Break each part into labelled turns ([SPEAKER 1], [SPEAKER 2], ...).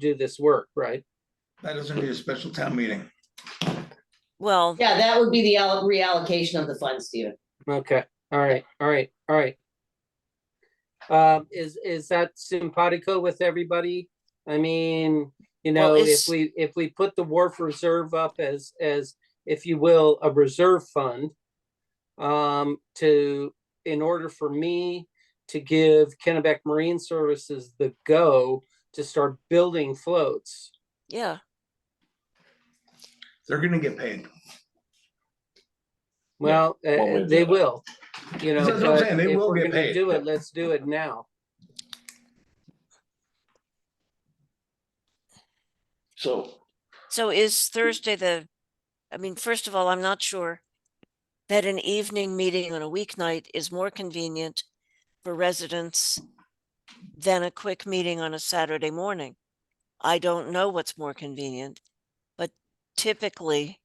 [SPEAKER 1] do this work, right?
[SPEAKER 2] That doesn't need a special town meeting.
[SPEAKER 3] Well,
[SPEAKER 4] Yeah, that would be the al- reallocation of the funds, Stephen.
[SPEAKER 1] Okay, all right, all right, all right. Um, is, is that simpatico with everybody? I mean, you
[SPEAKER 3] Well,
[SPEAKER 1] know, if
[SPEAKER 3] it's-
[SPEAKER 1] we, if we put the wharf reserve up as, as, if you will, a reserve fund. Um, to, in order for me to give Kennebec Marine Services the go to start building floats.
[SPEAKER 3] yeah,
[SPEAKER 2] They're gonna get paid.
[SPEAKER 1] Well, uh,
[SPEAKER 5] one way or
[SPEAKER 1] uh,
[SPEAKER 5] the
[SPEAKER 1] they
[SPEAKER 5] other.
[SPEAKER 1] will, you know,
[SPEAKER 2] That's what I'm
[SPEAKER 1] but
[SPEAKER 2] saying, they
[SPEAKER 1] if
[SPEAKER 2] will
[SPEAKER 1] we're
[SPEAKER 2] get
[SPEAKER 1] gonna
[SPEAKER 2] paid.
[SPEAKER 1] do it, let's do it now.
[SPEAKER 5] So
[SPEAKER 3] so is Thursday the, I mean, first of all, I'm not sure that an evening meeting on a weeknight is more convenient for residents than a quick meeting on a Saturday morning. I don't know what's more convenient, but typically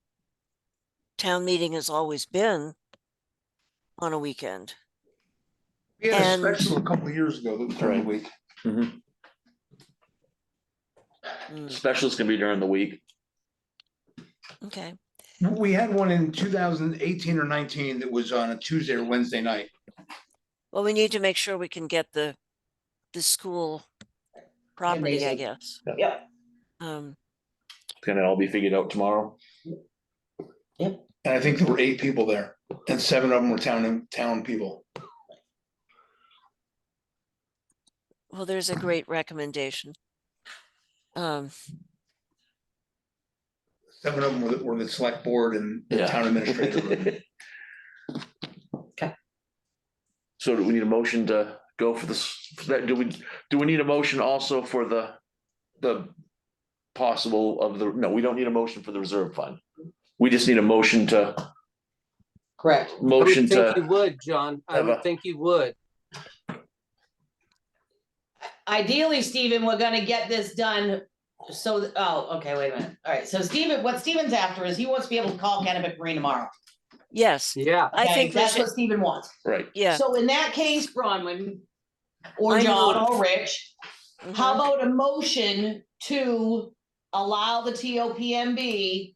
[SPEAKER 3] town meeting has always been on a weekend.
[SPEAKER 2] We had a
[SPEAKER 3] And-
[SPEAKER 2] special a couple of years ago, that was during the week.
[SPEAKER 3] Mm,
[SPEAKER 5] specials can be during the week.
[SPEAKER 3] Okay,
[SPEAKER 2] We had one in two thousand eighteen or nineteen that was on a Tuesday or Wednesday night.
[SPEAKER 3] well, we need to make sure we can get the, the school property, I
[SPEAKER 4] Amazing.
[SPEAKER 3] guess.
[SPEAKER 4] Yep.
[SPEAKER 3] Um,
[SPEAKER 5] Can it all be figured out tomorrow?
[SPEAKER 2] And I think there were eight people there and seven of them were town, town people.
[SPEAKER 3] well, there's
[SPEAKER 4] Uh-huh.
[SPEAKER 3] a great recommendation. Um,
[SPEAKER 2] Seven of them were, the- were the select board and the
[SPEAKER 5] Yeah.
[SPEAKER 2] town administrator.
[SPEAKER 5] So do we need a motion to go for this, for that, do we, do we need a motion also for the, the possible of the, no, we don't need a motion for the reserve fund. We just need a motion to,
[SPEAKER 4] Correct.
[SPEAKER 1] I would
[SPEAKER 5] motion
[SPEAKER 1] think You
[SPEAKER 5] to,
[SPEAKER 1] would, John. I
[SPEAKER 5] have
[SPEAKER 1] would
[SPEAKER 5] a-
[SPEAKER 1] think you would.
[SPEAKER 4] Ideally, Stephen, we're gonna get this done, so, th- oh, okay, wait a minute. All right, so Stephen, what Stephen's after is he wants to be able to call Kennebec Marine tomorrow.
[SPEAKER 3] yes,
[SPEAKER 1] Yeah,
[SPEAKER 3] I
[SPEAKER 4] Okay,
[SPEAKER 3] think we
[SPEAKER 4] That's
[SPEAKER 3] should-
[SPEAKER 4] what Stephen wants.
[SPEAKER 5] right,
[SPEAKER 3] yeah.
[SPEAKER 4] So in that case, Bronwyn, or
[SPEAKER 3] I
[SPEAKER 4] John,
[SPEAKER 3] move.
[SPEAKER 4] or Rich,
[SPEAKER 3] mhm.
[SPEAKER 4] how about a motion to allow the TOPMB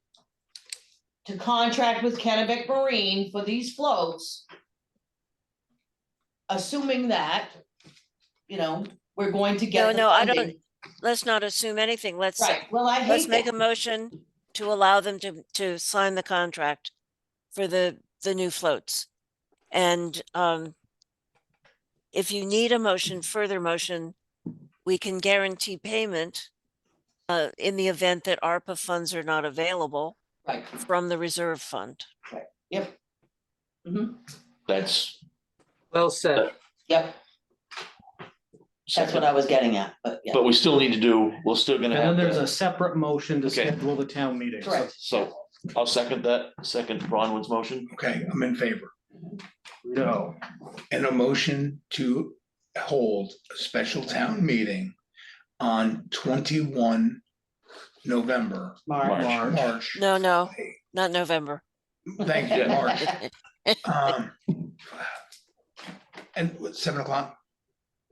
[SPEAKER 4] to contract with Kennebec Marine for these floats? Assuming that, you know, we're going to get.
[SPEAKER 3] No,
[SPEAKER 4] the
[SPEAKER 3] no, I don't-
[SPEAKER 4] funding.
[SPEAKER 3] Let's not assume anything. Let's,
[SPEAKER 4] Right, well, I
[SPEAKER 3] let's
[SPEAKER 4] hate
[SPEAKER 3] make a
[SPEAKER 4] that.
[SPEAKER 3] motion to allow them to, to sign the contract for the, the new floats. And, um, if you need a motion, further motion, we can guarantee payment uh, in the event that ARPA funds are not available
[SPEAKER 4] Right,
[SPEAKER 3] from the reserve fund.
[SPEAKER 4] yep. hmm
[SPEAKER 5] that's.
[SPEAKER 1] well said.
[SPEAKER 4] yep, that's what I was getting at, but yeah,
[SPEAKER 5] But we still need to do, we're still gonna have.
[SPEAKER 6] And then there's
[SPEAKER 5] to-
[SPEAKER 6] a separate motion to
[SPEAKER 5] Okay.
[SPEAKER 6] schedule the town meeting. So
[SPEAKER 4] correct.
[SPEAKER 5] So I'll second that, second Bronwyn's motion.
[SPEAKER 2] Okay, I'm in favor.
[SPEAKER 6] No,
[SPEAKER 2] And a motion to hold a special town meeting on twenty-one November,
[SPEAKER 4] Mark.
[SPEAKER 6] March.
[SPEAKER 2] March.
[SPEAKER 3] No, no, not November.
[SPEAKER 2] Thank you, March. Um, And what, seven o'clock,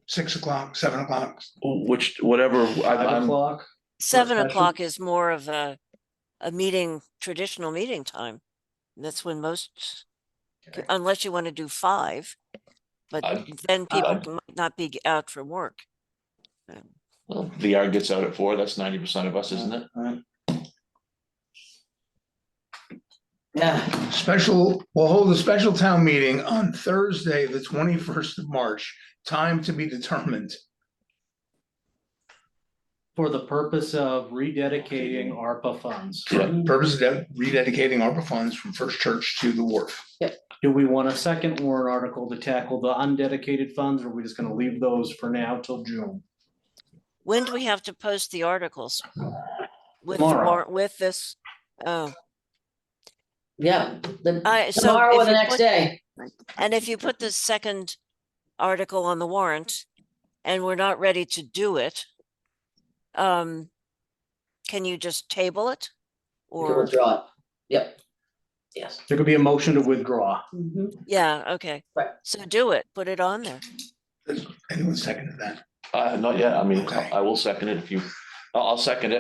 [SPEAKER 2] six o'clock, seven o'clock,
[SPEAKER 5] Which, whatever, I'm,
[SPEAKER 6] five
[SPEAKER 5] I'm-
[SPEAKER 6] o'clock.
[SPEAKER 3] Seven
[SPEAKER 6] session?
[SPEAKER 3] o'clock is more of a, a meeting, traditional meeting time. That's when most,
[SPEAKER 4] Okay.
[SPEAKER 3] unless you want to do five. But
[SPEAKER 5] I'm-
[SPEAKER 3] then people
[SPEAKER 5] I'm-
[SPEAKER 3] c- might not be out from work.
[SPEAKER 5] Well, the yard gets out at four, that's ninety percent of us, isn't it?
[SPEAKER 4] Yeah,
[SPEAKER 2] Special, we'll hold a special town meeting on Thursday, the twenty-first of March, time to be determined.
[SPEAKER 6] For the purpose of rededicating ARPA funds.
[SPEAKER 5] Yeah.
[SPEAKER 2] Purpose of de- rededicating ARPA funds from First Church to the Wharf.
[SPEAKER 6] Do we want a second warrant article to tackle the undedicated funds, or are we just gonna leave those for now till June?
[SPEAKER 3] When do we have to post the articles? With, the
[SPEAKER 6] Tomorrow.
[SPEAKER 3] war- with this, oh,
[SPEAKER 4] yeah, the,
[SPEAKER 3] I, Uh, so.
[SPEAKER 4] tomorrow or
[SPEAKER 3] if
[SPEAKER 4] the
[SPEAKER 3] you
[SPEAKER 4] next
[SPEAKER 3] put-
[SPEAKER 4] day,
[SPEAKER 3] And if you put the second article on the warrant and we're not ready to do it, um, can you just table it?
[SPEAKER 4] you can
[SPEAKER 3] Or,
[SPEAKER 4] withdraw it, yep, yes.
[SPEAKER 6] There could be a motion to withdraw.
[SPEAKER 4] Mhm.
[SPEAKER 3] yeah, okay.
[SPEAKER 4] Right.
[SPEAKER 3] So do it, put it on there.
[SPEAKER 2] Anyone second to that?
[SPEAKER 5] Uh, not yet, I mean,
[SPEAKER 2] Okay.
[SPEAKER 5] I will second it if you, I'll, I'll second it.